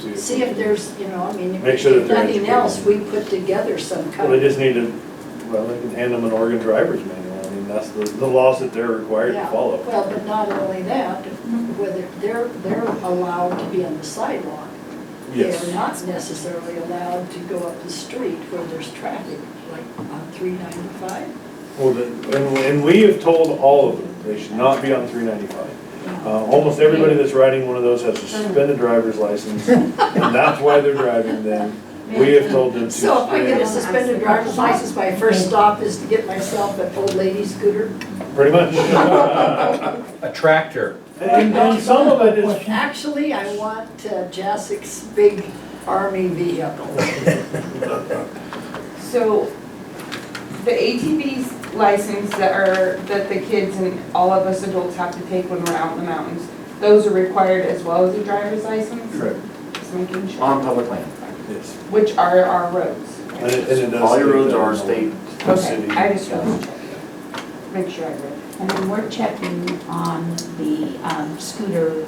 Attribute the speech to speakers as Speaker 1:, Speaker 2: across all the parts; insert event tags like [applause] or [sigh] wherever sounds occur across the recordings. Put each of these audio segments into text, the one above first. Speaker 1: see if.
Speaker 2: See if there's, you know, I mean,
Speaker 1: Make sure that
Speaker 2: if
Speaker 1: they're
Speaker 2: nothing
Speaker 1: educated.
Speaker 2: else, we put together some
Speaker 1: Well, they
Speaker 2: kind of,
Speaker 1: just need to, well, they can hand them an Oregon driver's manual, I mean, that's the, the laws that they're required to
Speaker 2: yeah.
Speaker 1: follow.
Speaker 2: Well, but not only that, whether they're, they're allowed to be on the sidewalk.
Speaker 1: Yes.
Speaker 2: They are not necessarily allowed to go up the street where there's traffic, like on three ninety-five.
Speaker 1: Well, the- and, and we have told all of them, they should not be on three ninety-five.
Speaker 2: Yeah.
Speaker 1: Uh, almost everybody that's riding one of those has a suspended driver's license, and that's why they're driving them. We have told them to.
Speaker 2: So if I get a
Speaker 1: stay-
Speaker 2: suspended driver's license, my first stop is to get myself an old lady scooter.
Speaker 1: Pretty much.
Speaker 3: A tractor.
Speaker 1: [laughs] And, and some of it is,
Speaker 2: Actually, I want uh, Jasek's big army vehicle.
Speaker 4: So the ATVs license that are, that the kids and all of us adults have to take when we're out in the mountains, those are required as well as a driver's license?
Speaker 1: correct, Um,
Speaker 4: Just making sure.
Speaker 5: On public land.
Speaker 1: yes.
Speaker 4: Which are our roads.
Speaker 1: And it- and it does
Speaker 5: All your
Speaker 1: state
Speaker 5: roads
Speaker 1: that
Speaker 5: are
Speaker 1: on the-
Speaker 5: state,
Speaker 4: Okay,
Speaker 5: city.
Speaker 4: I just wanted to check. Make sure I read.
Speaker 6: And then we're checking on the um, scooter,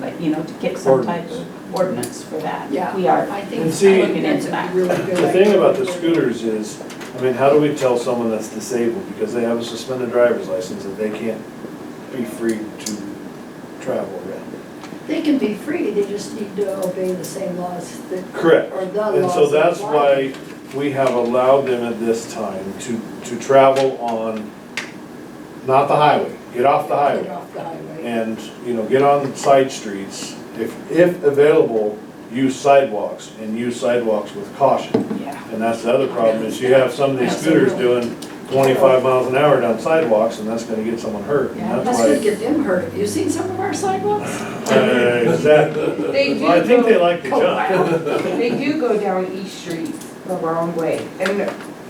Speaker 6: like, you know, to get some type of ordinance for that.
Speaker 2: Yeah.
Speaker 6: We are.
Speaker 2: I think
Speaker 1: And see-
Speaker 2: looking into that. really good
Speaker 1: The thing
Speaker 2: idea.
Speaker 1: about the scooters is, I mean, how do we tell someone that's disabled because they have a suspended driver's license that they can't be free to travel around?
Speaker 2: They can be free, they just need to obey the same laws that.
Speaker 1: Correct.
Speaker 2: Or the laws.
Speaker 1: And so
Speaker 2: that
Speaker 1: that's
Speaker 2: apply.
Speaker 1: why we have allowed them at this time to, to travel on, not the highway, get off the
Speaker 2: Get
Speaker 1: highway.
Speaker 2: off the highway.
Speaker 1: And, you know, get on side streets, if, if available, use sidewalks and use sidewalks with caution.
Speaker 6: Yeah.
Speaker 1: And that's the other problem, is you have some of these scooters doing twenty-five miles an hour down sidewalks, and that's gonna get someone hurt,
Speaker 2: Yeah,
Speaker 1: and
Speaker 2: that's gonna
Speaker 1: that's why.
Speaker 2: get them hurt. Have you seen some of our sidewalks?
Speaker 1: Uh, Exactly.
Speaker 4: They do
Speaker 1: Well, I think they
Speaker 4: go-
Speaker 1: like to jump,
Speaker 4: They do go down East Street the wrong way. And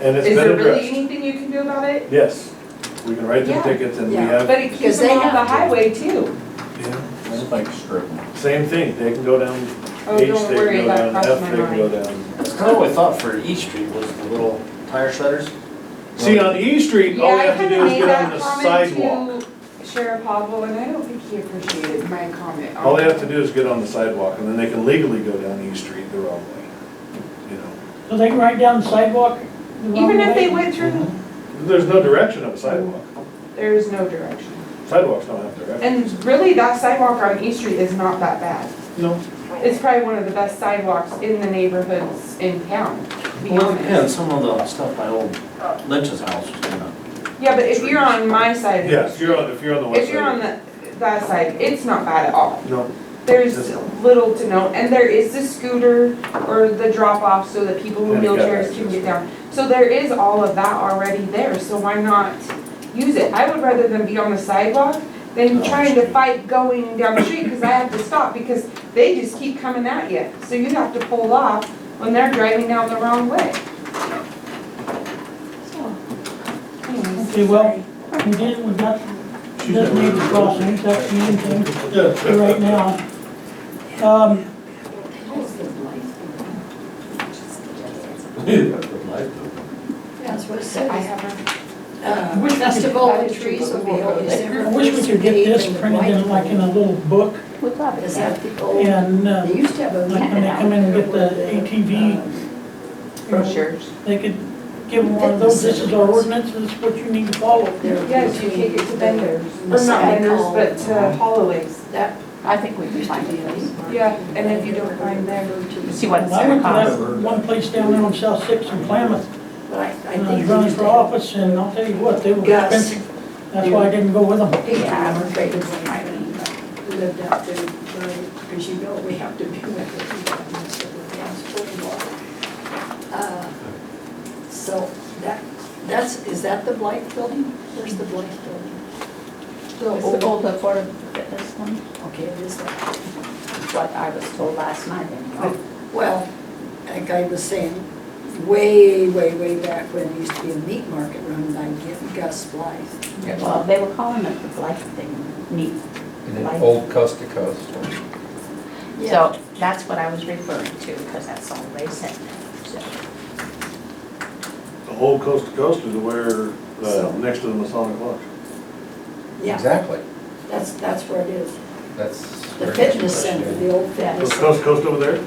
Speaker 1: and it's been
Speaker 4: is there really
Speaker 1: addressed.
Speaker 4: anything you can do about it?
Speaker 1: Yes, we can write them
Speaker 4: Yeah.
Speaker 1: tickets and we
Speaker 2: Yeah.
Speaker 1: have,
Speaker 4: But it keeps
Speaker 2: Because they
Speaker 4: them off the
Speaker 2: have to.
Speaker 4: highway too.
Speaker 5: It's like stripping.
Speaker 1: same thing, they can go down
Speaker 4: Oh,
Speaker 1: H, they
Speaker 4: don't
Speaker 1: can
Speaker 4: worry,
Speaker 1: go
Speaker 4: that
Speaker 1: down
Speaker 4: crossed
Speaker 1: F,
Speaker 4: my
Speaker 1: they can go
Speaker 4: mind.
Speaker 1: down.
Speaker 5: That's kind of what I thought for East Street was the little tire shredders.
Speaker 1: See, on E Street, all we have to do is get on the sidewalk.
Speaker 4: to Sheriff Hobble, and I don't think he appreciated my comment. on
Speaker 1: All they have to
Speaker 4: that.
Speaker 1: do is get on the sidewalk, and then they can legally go down E Street the wrong way, you know.
Speaker 7: So they can ride down the sidewalk the wrong
Speaker 4: Even if they
Speaker 7: way?
Speaker 4: went through,
Speaker 1: There's no direction of a sidewalk,
Speaker 4: there is no direction.
Speaker 1: sidewalks don't have direction.
Speaker 4: And really, that sidewalk on East Street is not that bad.
Speaker 1: No.
Speaker 4: It's probably one of the best sidewalks in the neighborhoods in town, to be
Speaker 5: Well, yeah, and
Speaker 4: honest.
Speaker 5: some of the stuff by old Lynch's house was kind of,
Speaker 4: Yeah, but if you're on my side of
Speaker 1: Yeah,
Speaker 4: the
Speaker 1: if
Speaker 4: street,
Speaker 1: you're on, if you're on the west side.
Speaker 4: if you're on the, that side, it's not bad at all.
Speaker 1: No,
Speaker 4: There's little to no, and there is the scooter or the drop-off so that people in
Speaker 1: And it got
Speaker 4: wheelchairs can get down. So there is all of that already there, so why not use it? I would rather than be on the sidewalk than
Speaker 5: Oh,
Speaker 4: trying to
Speaker 5: street.
Speaker 4: fight going down the street because I have to stop because they just keep coming at you. So you have to pull off when they're driving down the wrong way. So, anyways.
Speaker 7: Okay, well, we did, we got, just made the crossing, that's the main thing for right now. Um,
Speaker 2: That's what it
Speaker 4: I
Speaker 2: says.
Speaker 4: haven't,
Speaker 2: Uh, Festival of trees will be held December
Speaker 7: I wish we could get this printed in like in a little book
Speaker 6: We love it.
Speaker 2: Is that the old,
Speaker 7: and, uh,
Speaker 2: they used to have a.
Speaker 7: like when they come in and get the
Speaker 2: um,
Speaker 7: ATV,
Speaker 4: brochures.
Speaker 7: they could give them one of those, this is our ordinance, this is what you need to follow.
Speaker 4: Yes, you take it to vendors, or not vendors, but to Holloway's.
Speaker 2: That
Speaker 6: I think we can
Speaker 2: used to
Speaker 6: find
Speaker 2: be a
Speaker 6: it.
Speaker 2: market.
Speaker 4: Yeah, and if you don't find them-
Speaker 6: See what it's
Speaker 7: Well, I
Speaker 6: gonna
Speaker 7: went to
Speaker 6: cost.
Speaker 7: that one place down there on South Sixth in Klamath,
Speaker 2: But I, I
Speaker 7: and I
Speaker 2: think.
Speaker 7: was running for office, and I'll tell you what, they were
Speaker 2: Gus.
Speaker 7: expensive. That's why I didn't go with them.
Speaker 2: Yeah,
Speaker 6: Yeah,
Speaker 2: I'm afraid it's
Speaker 6: I mean, but-
Speaker 2: lived out there, because you know we have to be with the people in this area. Uh, So that, that's, is that the Blight Building? Where's the Blight Building?
Speaker 6: It's the old affordable fitness one,
Speaker 2: Okay, it is that. Oh,
Speaker 6: what I was told last night. anyway.
Speaker 2: Well, like I was saying, way, way, way back when there used to be a meat market run by Gus Blythe.
Speaker 6: Well, they were calling it the life thing, neat.
Speaker 3: And then old coast to coast.
Speaker 6: So that's what I was referring to, because that's all they said. So
Speaker 1: the whole coast to coast is where, uh,
Speaker 2: So-
Speaker 1: next to the Masonic Lodge.
Speaker 2: Yeah,
Speaker 3: Exactly.
Speaker 2: that's, that's where it is.
Speaker 3: That's.
Speaker 2: The fitness center, the old
Speaker 1: Is
Speaker 2: fitness.
Speaker 1: coast to coast over there?